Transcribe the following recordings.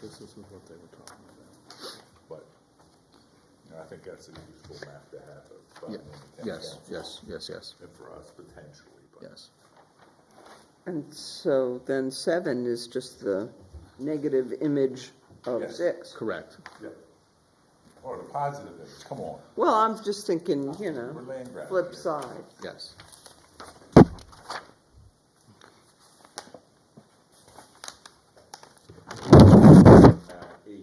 this is what they were talking about. But, you know, I think that's a useful map to have of five Yeah, and ten Yes, counties. yes, yes, yes, And for us potentially, but yes. And so then seven is just the negative image of Yes. six. Correct. yeah. Or the positive is, come on. Well, I'm just thinking, you We're know, land grabbing. flip here. side. Yes. Now, eight. we will add another three.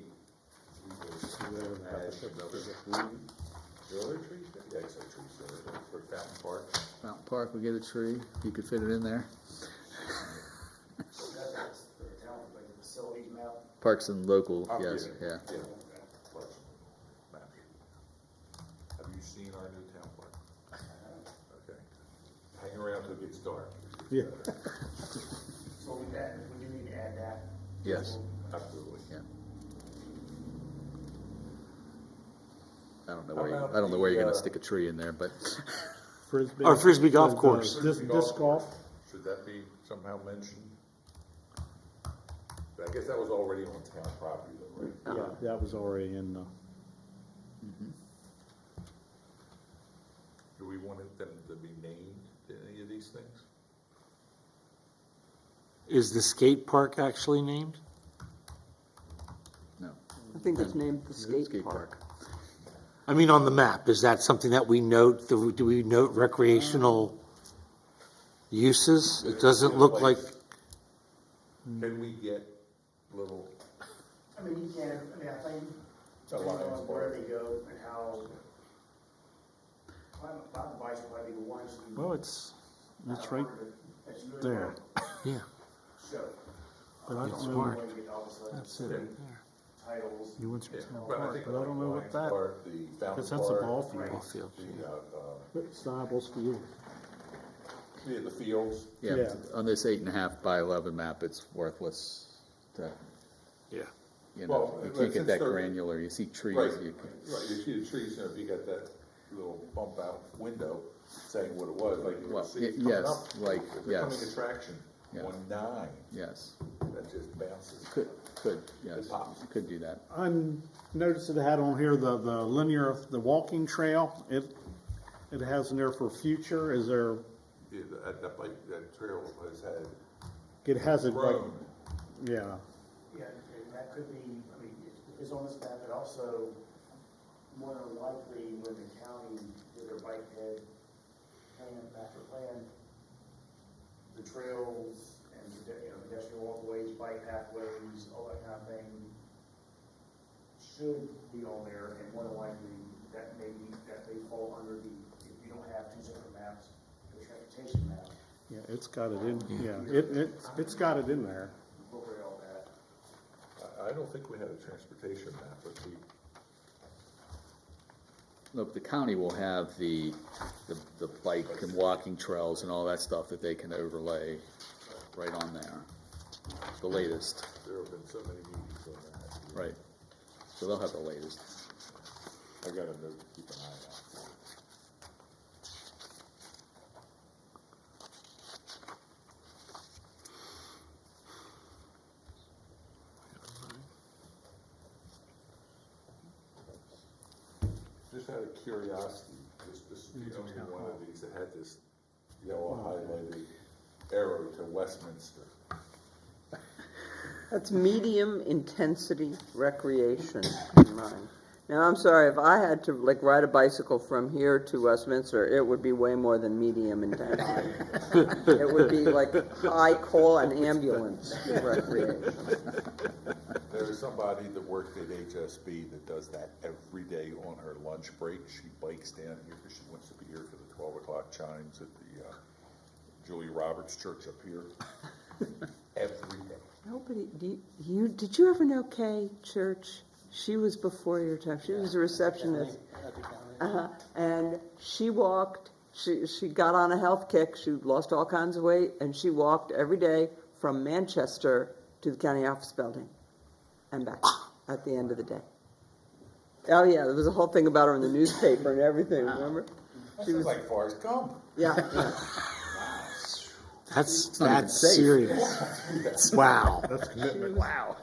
Are there trees there? Yeah, it's a tree, so there, for Fountain Park. Mountain Park, we get a tree, you could fit it in there. That's the town, like the facilities map. Parks and local, Oh, yes, yeah. Yeah. Park. Map. Have you seen our new town park? Okay. Hang around till it gets dark. Yeah. So we add, we do need to add that. Yes. Absolutely. Yeah. I don't know How where, you- about I don't know where you're the, gonna uh, stick a tree in there, but Frisbee. Or frisbee golf Uh, course. Disc, Frisbee disc golf. course, Should that be somehow mentioned? But I guess that was already on town property though, right? Yeah, that was already in the, Do we want it- them to be named in any of these things? Is the skate park actually named? no. I think it's named the Skate skate park. park. I mean, on the map, is that something that we note, do we- do we note recreational uses? It doesn't look like, Hmm. Can we get little, I mean, you can't, I mean, I think, The depending lines on where part. they go and how. I'm about the bicycle, I think the ones. in- well, it's, it's right That's really there. yeah, So. But I It's don't know, marked. when you get all of a sudden that's it. Titles. You went to yeah, town but I park, think. but I don't know what Lions that, Park, The Fountain because that's a ball Park, field. ball field. the, uh, uh, It's Nobles Field. yeah, the fields, Yeah, Yeah. on this eight and a half by eleven map, it's worthless to, Yeah. you know, Well, you since can't get that they're- granular, you see trees, right, right, you, you see the trees, you know, if you got that little bump out window saying what it was, like you Well, can see y- it's coming yes, up. like, It's becoming yes. attraction Yeah. on nine, yes, that just bounces. could, could, yes, pops. could do that. I'm, notice it had on here the, the linear, the walking trail. It, it has in there for future, is there, Yeah, that, that bike, that trail has had it has it like, grown. yeah. Yeah, and that could be, I mean, if it's on this map, but also more than likely when the county did their bike head plan, master plan, the trails and pede- you know, pedestrian walkways, bike pathways, all that kind of thing should be on there and more than likely that may be, that may fall under the, if you don't have two separate maps, the transportation map, Yeah, it's got it in, yeah, it, it, it's got it in there. incorporate all that. I, I don't think we had a transportation map, but we, Look, the county will have the, the, the bike and walking trails and all that stuff that they can overlay right on there. The latest, there have been so many meetings on that. right, so they'll have the latest. I got a note to keep an eye out for. Just out of curiosity, this, this is the only one of these that had this yellow highlighted arrow to Westminster. That's medium intensity recreation in mind. Now, I'm sorry, if I had to like ride a bicycle from here to Westminster, it would be way more than medium intensity. It would be like, I call an ambulance recreation. There is somebody that worked at HSB that does that every day on her lunch break. She bikes down here because she wants to be here for the twelve o'clock chimes at the uh, Julia Roberts Church up here. Every day. Nobody, do you, you, did you ever know Kay Church? She was before your time. She was a receptionist. Uh-huh. And she walked, she, she got on a health kick. She lost all kinds of weight and she walked every day from Manchester to the county office building and back at the end of the day. Oh, yeah, there was a whole thing about her in the newspaper and everything, remember? She was like Forrest Gump. Yeah, yeah. That's, not even that's safe. serious. Wow. Wow.